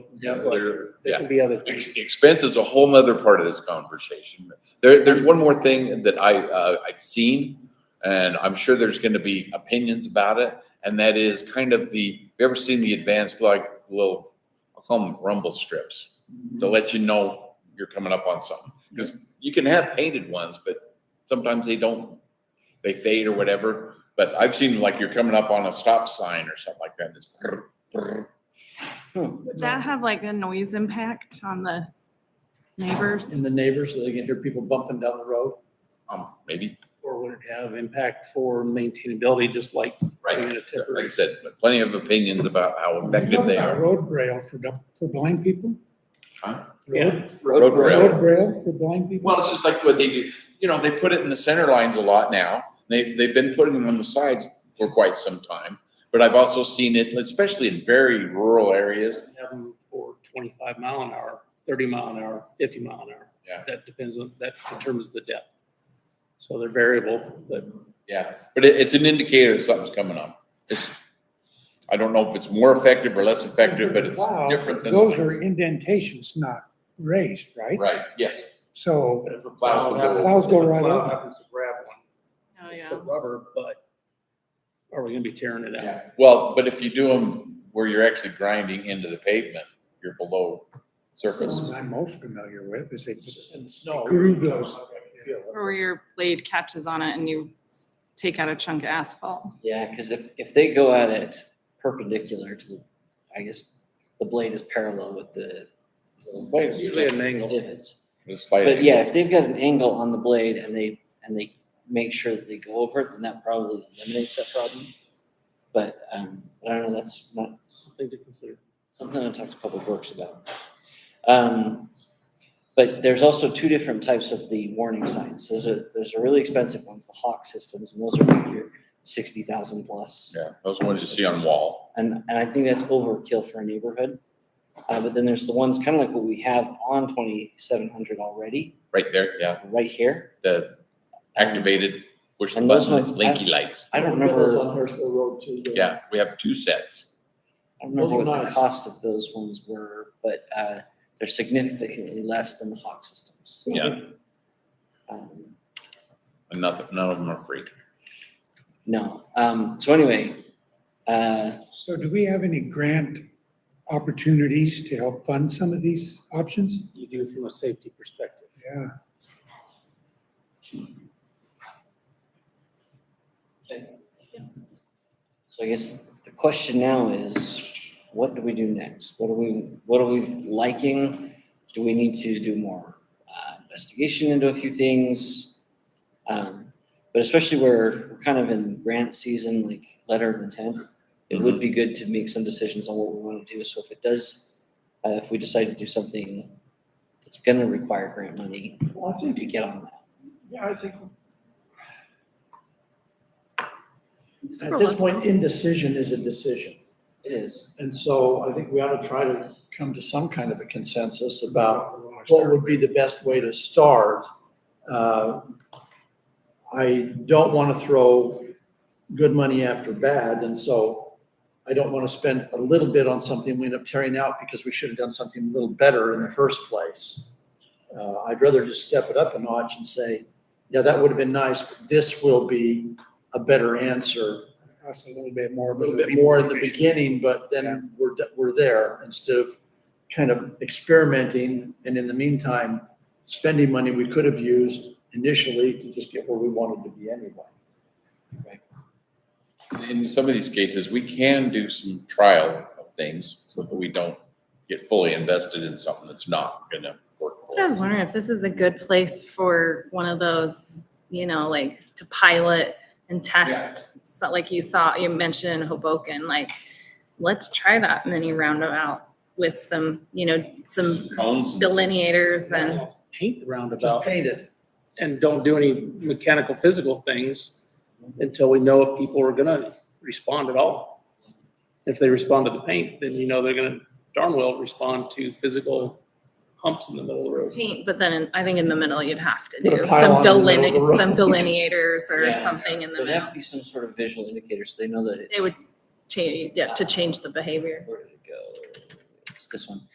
Yep. There- There yeah. can be other things. Ex- Expense is a whole nother part of this conversation. There, there's one more thing that I, uh, I've seen, and I'm sure there's gonna be opinions about it, and that is kind of the, have you ever seen the advanced like little, I'll call them rumble strips? to let you know you're coming up on something. Because you can have painted ones, but sometimes they don't, they fade or whatever. But I've seen like you're coming up on a stop sign or something like that. and It's brr, brr. Would that have like a noise impact on the neighbors? And the neighbors, so they can hear people bumping down the road, Um, maybe, or would it have impact for maintainability, just like right. doing a Like I temporary? said, but plenty of opinions about how effective they are. Road braille for, dumb- for blind people? Huh? Yeah. Road Road rail. braille for blind people? Well, it's just like what they do, you know, they put it in the center lines a lot now. They, they've been putting them on the sides for quite some time. But I've also seen it, especially in very rural areas, Have them for twenty-five mile an hour, thirty mile an hour, fifty mile an hour. Yeah. That depends on, that determines the depth. So they're variable, but Yeah, but it, it's an indicator that something's coming up. It's, I don't know if it's more effective or less effective, but it's Wow, different than. Those are lights. indentations, not raised, right? Right, yes. So, but if a Plows plow will happens. go- Plows go if a right plow over. Happens to grab one, Oh, Oh, it's the rubber, but are we gonna be tearing it out? Yeah. Well, but if you do them where you're actually grinding into the pavement, you're below surface. what I'm most familiar with is they just In the snow. groove those. Or your blade catches on it and you s- take out a chunk of asphalt? Yeah, because if, if they go at it perpendicular to the, I guess, the blade is parallel with the It's usually at an angle. divots. It's slight But yeah, if they've got an angle on the blade and they, and they make sure that they go over it, then that probably eliminates that problem. But, um, I don't know, that's not Something to consider. something I talk to Public Works about. Um, but there's also two different types of the warning signs. Those are, those are really expensive ones, the Hawk systems, and those are like your sixty thousand plus. Yeah, those ones you see on wall. And, and I think that's overkill for a neighborhood. Uh, but then there's the ones kind of like what we have on twenty-seven hundred already, Right there, yeah, right here. the activated, push the And those button, it's ones have- linky lights. I don't Remember remember, those I on Hurstville Road too. though? Yeah, we have two sets. don't remember Those are what the nice. cost of those ones were, but, uh, they're significantly less than the Hawk systems. Yeah, Um, and nothing, none of them are free. No, um, so anyway, uh, So do we have any grant opportunities to help fund some of these options? You do from a safety perspective. Yeah. so I guess the question now is, what do we do next? What are we, what are we liking? Do we need to do more uh, investigation into a few things? Um, But especially where we're kind of in grant season, like letter of intent, it would be good to make some decisions on what we want to do. So if it does, uh, if we decide to do something that's gonna require grant money, Well, I we could get on that. yeah, I think Just for At this look- point, indecision is a decision. It is. And so I think we ought to try to come to some kind of a consensus about what would be the best way to start. Uh, I don't want to throw good money after bad, and so I don't want to spend a little bit on something we end up tearing out because we should have done something a little better in the first place. Uh, I'd rather just step it up a notch and say, yeah, that would have been nice, but this will be a better answer Cost a little bit more. a but little it'll bit be more in the efficient. beginning, but then we're, d- we're there instead of kind of experimenting. And in the meantime, spending money we could have used initially to just get where we wanted to be anyway. In some of these cases, we can do some trial of things so that we don't get fully invested in something that's not gonna work. So I was wondering if this is a good place for one of those, you know, like to pilot and test. So like you saw, you mentioned in Hoboken, like, let's try that and then you round them out with some, you know, some Cones and- delineators and paint the roundabout Just paint it. and don't do any mechanical, physical things until we know if people are gonna respond at all. If they respond to the paint, then you know they're gonna darn well respond to physical humps in the middle of the road. paint, but then in- I think in the middle you'd have to Put a do some pylon in the middle of the deline, some road. delineators or Yeah. something in the There'd have middle. to be some sort of visual indicator so they know that it's. They would change, yeah, to change the behavior. Where did it go? It's this one.